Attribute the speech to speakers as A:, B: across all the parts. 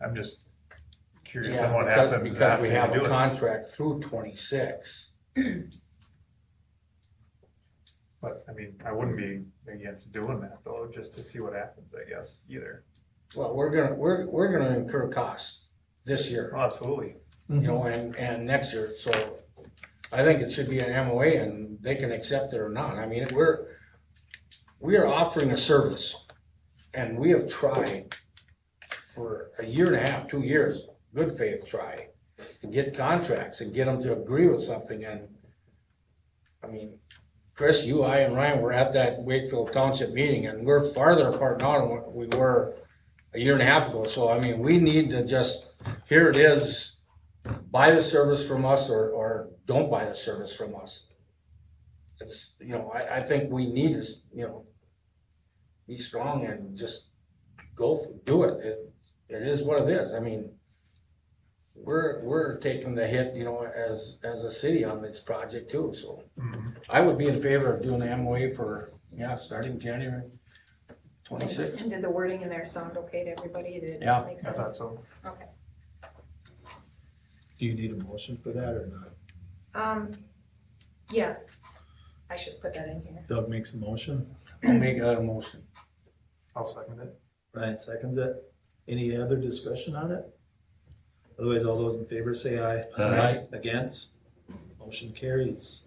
A: I'm just curious on
B: Yeah,
A: what
B: because,
A: happens
B: because
A: after
B: we
A: you
B: have a
A: do it.
B: contract through twenty-six.
A: But, I mean, I wouldn't be against doing that though, just to see what happens, I guess, either.
B: Well, we're gonna, we're, we're gonna incur costs this year,
A: Oh, absolutely.
B: you know, and, and next year, so I think it should be an MOA and they can accept it or not. I mean, we're, we are offering a service and we have tried for a year and a half, two years, good faith try, to get contracts and get them to agree with something and I mean, Chris, you, I, and Ryan were at that Wakefield Township meeting, and we're farther apart now than what we were a year and a half ago, so I mean, we need to just, here it is, buy the service from us or, or don't buy the service from us. It's, you know, I, I think we need is, you know, be strong and just go, f- do it, it, it is what it is, I mean, we're, we're taking the hit, you know, as, as a city on this project too, so.
A: Mhm.
B: I would be in favor of doing an MOA for, yeah, starting January twenty-sixth.
C: And did the wording in there sound okay to everybody? Did
B: Yeah.
C: it make
A: I thought
C: sense?
A: so.
C: Okay.
D: Do you need a motion for that or not?
C: Um, yeah, I should put that in here.
D: Doug makes a motion,
B: I'll make a motion.
A: I'll second it.
D: Ryan seconds it. Any other discussion on it? Otherwise, all those in favor say aye.
B: Aye.
D: Against? Motion carries.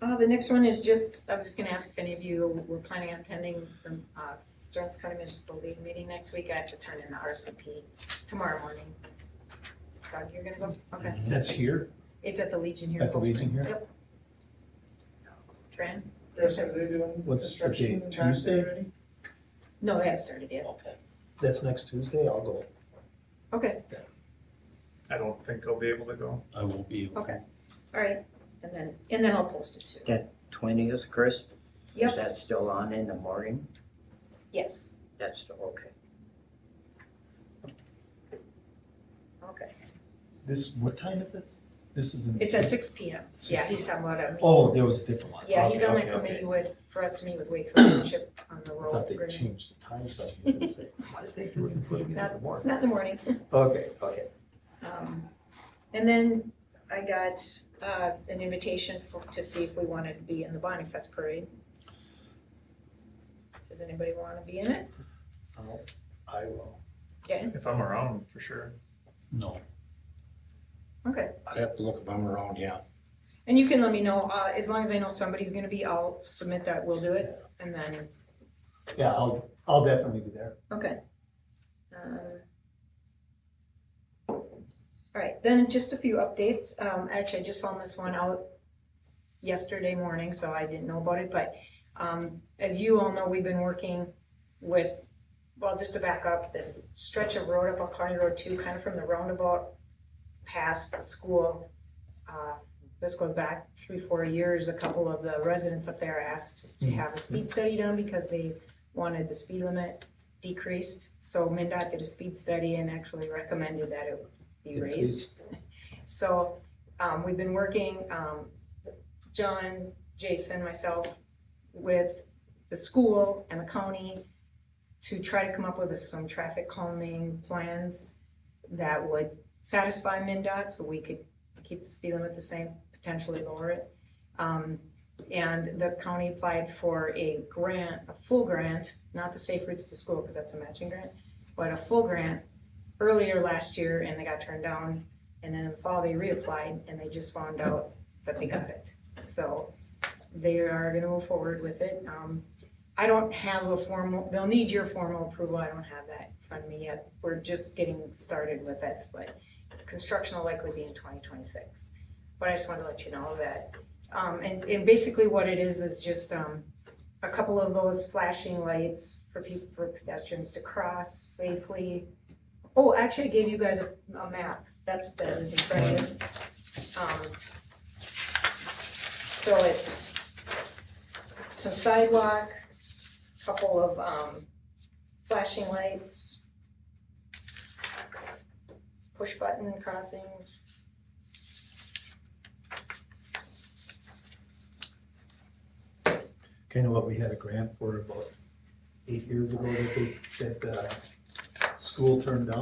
C: Uh, the next one is just, I was just gonna ask if any of you were planning on attending the, uh, Stearns County Municipal League meeting next week. I have to turn in the RSVP tomorrow morning. Doug, you're gonna go? Okay.
D: That's here?
C: It's at the Legion here. in
D: Mm-hmm. At the
C: Cold
D: Legion
C: Spring.
D: here?
C: Yep. Tran?
E: Chris, are they doing
D: What's the
E: construction
D: date?
E: in Jackson
D: Tuesday?
E: already?
C: No, they haven't started yet.
E: Okay.
D: That's next Tuesday? I'll go.
C: Okay,
A: I don't think I'll be able to go.
F: I won't be. able-
C: Okay. all right. And then, and then I'll post it too.
G: twentieth, Chris?
C: Yep.
G: Is that still on in the morning?
C: Yes,
G: That's still okay.
C: okay.
D: This, what time is this? This is in.
C: It's at six P M. Yeah, he's talking about a
D: Oh, there was a different one.
C: Yeah, he's
D: Okay,
C: on that
D: okay, okay.
C: committee with, for us to meet with Wakefield Township on the
D: I
C: road.
D: thought they
C: agreement.
D: changed the time, so I was gonna say, why did they do it in the
C: It's
D: morning?
C: not in the morning.
D: Okay, okay.
C: Um, And then I got uh, an invitation for, to see if we wanted to be in the Bonnie Fest Parade. Does anybody want to be in it?
D: I'll- I will.
A: If I'm around, for sure.
F: No,
C: Okay,
B: I have to look if I'm around, yeah.
C: and you can let me know, uh, as long as I know somebody's gonna be, I'll submit that, we'll do it, and then,
D: Yeah, I'll, I'll definitely be there.
C: okay. Um, All right, then just a few updates. Um, actually, I just found this one out yesterday morning, so I didn't know about it, but, um, as you all know, we've been working with, well, just to back up, this stretch of road up on County Road Two, kind of from the roundabout past the school. Uh, this goes back three, four years, a couple of the residents up there asked to have a speed study done because they wanted the speed limit decreased. So MinDOT did a speed study and actually recommended that it be raised. So, um, we've been working, um, John, Jason, myself, with the school and the county to try to come up with some traffic calming plans that would satisfy MinDOT, so we could keep the speed limit the same, potentially lower it. Um, and the county applied for a grant, a full grant, not the Safe Routes to School, because that's a matching grant, but a full grant earlier last year, and they got turned down. And then in the fall, they reapplied, and they just found out that they got it. So they are gonna move forward with it. Um, I don't have a formal, they'll need your formal approval, I don't have that in front of me yet. We're just getting started with this, but construction will likely be in twenty twenty-six. But I just wanted to let you know that, um, and, and basically what it is, is just, um, a couple of those flashing lights for people, for pedestrians to cross safely. Oh, actually, I gave you guys a, a map, that's what that is in front of you. Um, so it's some sidewalk, couple of um flashing lights, push button crossings.
D: kind of what we had a grant for about eight years ago that they, that the uh, school turned down.